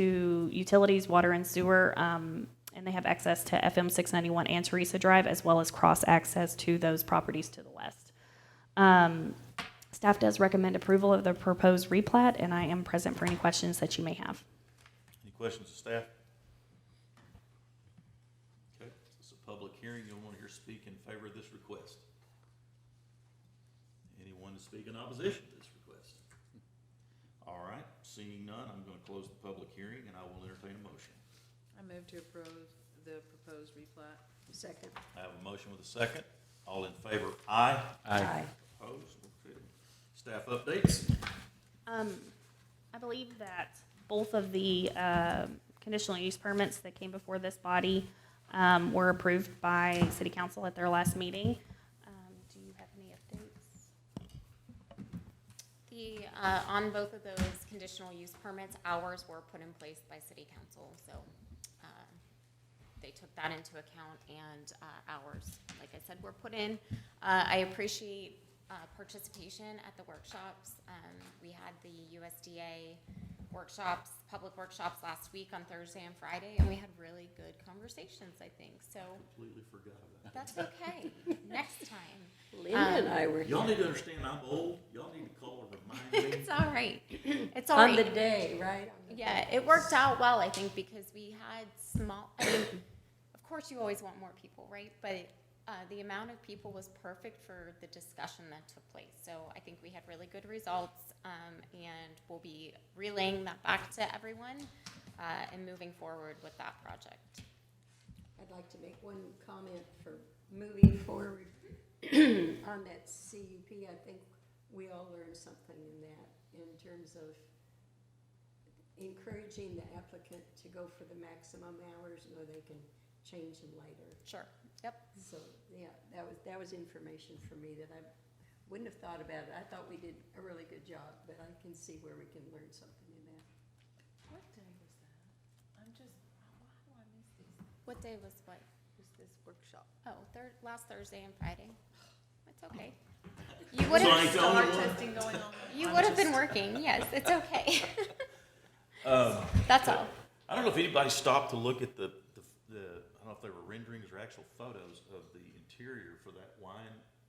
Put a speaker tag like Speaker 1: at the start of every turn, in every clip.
Speaker 1: to utilities, water and sewer, um, and they have access to FM 691 and Teresa Drive, as well as cross-access to those properties to the west. Um, Staff does recommend approval of the proposed replat, and I am present for any questions that you may have.
Speaker 2: Any questions of staff? Okay, this is a public hearing, you'll want to hear speak in favor of this request. Anyone to speak in opposition to this request? All right, seeing none, I'm going to close the public hearing and I will entertain a motion.
Speaker 3: I move to approve the proposed replat. Second.
Speaker 2: I have a motion with a second, all in favor, aye.
Speaker 3: Aye.
Speaker 2: Opposed, okay. Staff updates?
Speaker 1: Um, I believe that both of the uh, conditional use permits that came before this body um, were approved by City Council at their last meeting. Um, Do you have any updates?
Speaker 4: The, uh, on both of those conditional use permits, hours were put in place by city council, so, uh, they took that into account and, uh, hours, like I said, were put in. Uh, I appreciate, uh, participation at the workshops. Um, we had the USDA workshops, public workshops last week on Thursday and Friday, and we had really good conversations, I think, so
Speaker 2: Completely forgot about
Speaker 4: that's okay. Next time.
Speaker 3: Linda and I were
Speaker 2: that.
Speaker 5: Um,
Speaker 2: Y'all need to understand I'm old, y'all need to call and remind me.
Speaker 4: It's all right. It's all right.
Speaker 3: on the day, right? On the
Speaker 4: Yeah,
Speaker 3: day.
Speaker 4: it worked out well, I think, because we had small, I mean, of course you always want more people, right? But uh, the amount of people was perfect for the discussion that took place. So I think we had really good results, um, and we'll be relaying that back to everyone uh, and moving forward with that project.
Speaker 5: I'd like to make one comment for moving forward on that CUP. I think we all learned something in that, in terms of encouraging the applicant to go for the maximum hours, or they can change them later.
Speaker 4: Sure, yep.
Speaker 5: So, yeah, that was, that was information for me that I wouldn't have thought about it. I thought we did a really good job, but I can see where we can learn something in that.
Speaker 3: What day was that? I'm just, why do I miss this?
Speaker 4: What day was what?
Speaker 3: Was this workshop?
Speaker 4: Oh, thir- last Thursday and Friday. It's okay. You would
Speaker 2: Sorry,
Speaker 4: have,
Speaker 2: tell me
Speaker 3: Our
Speaker 2: one.
Speaker 3: testing going on.
Speaker 4: you would have been working, yes, it's okay.
Speaker 2: Um,
Speaker 4: That's all.
Speaker 2: I don't know if anybody stopped to look at the, the, the I don't know if they were renderings or actual photos of the interior for that wine.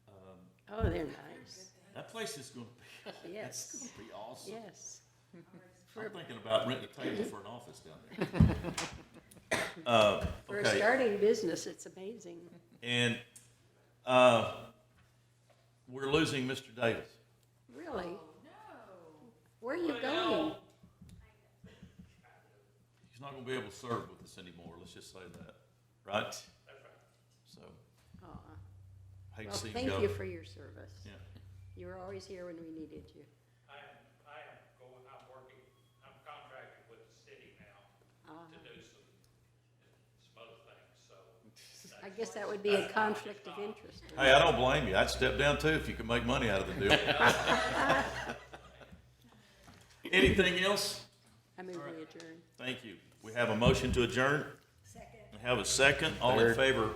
Speaker 2: Um,
Speaker 5: Oh, they're nice.
Speaker 2: that place is going to be, that's
Speaker 5: Yes.
Speaker 2: going to be awesome.
Speaker 5: Yes.
Speaker 2: I'm thinking about renting a table for an office down there. Uh,
Speaker 5: For a
Speaker 2: okay.
Speaker 5: starting business, it's amazing.
Speaker 2: And uh, we're losing Mr. Davis.
Speaker 5: Really? No. Where are you going?
Speaker 2: He's not going to be able to serve with us anymore. Let's just say that, right? That's right. So
Speaker 5: Aw.
Speaker 2: hate
Speaker 5: Well,
Speaker 2: to see him
Speaker 5: thank
Speaker 2: go.
Speaker 5: you for your service.
Speaker 2: yeah.
Speaker 5: You were always here when we needed you.
Speaker 6: I am, I am going, I'm working, I'm contracted with the city now
Speaker 5: Ah,
Speaker 6: to do some, some other things, so.
Speaker 5: I guess that would be a conflict of interest.
Speaker 2: Hey, I don't blame you. I'd step down too if you could make money out of the deal. Anything else?
Speaker 5: I move we adjourn.
Speaker 2: Thank you. We have a motion to adjourn. Second. Have a second. All in favor?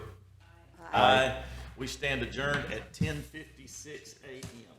Speaker 2: Aye. We stand adjourned at ten fifty-six AM.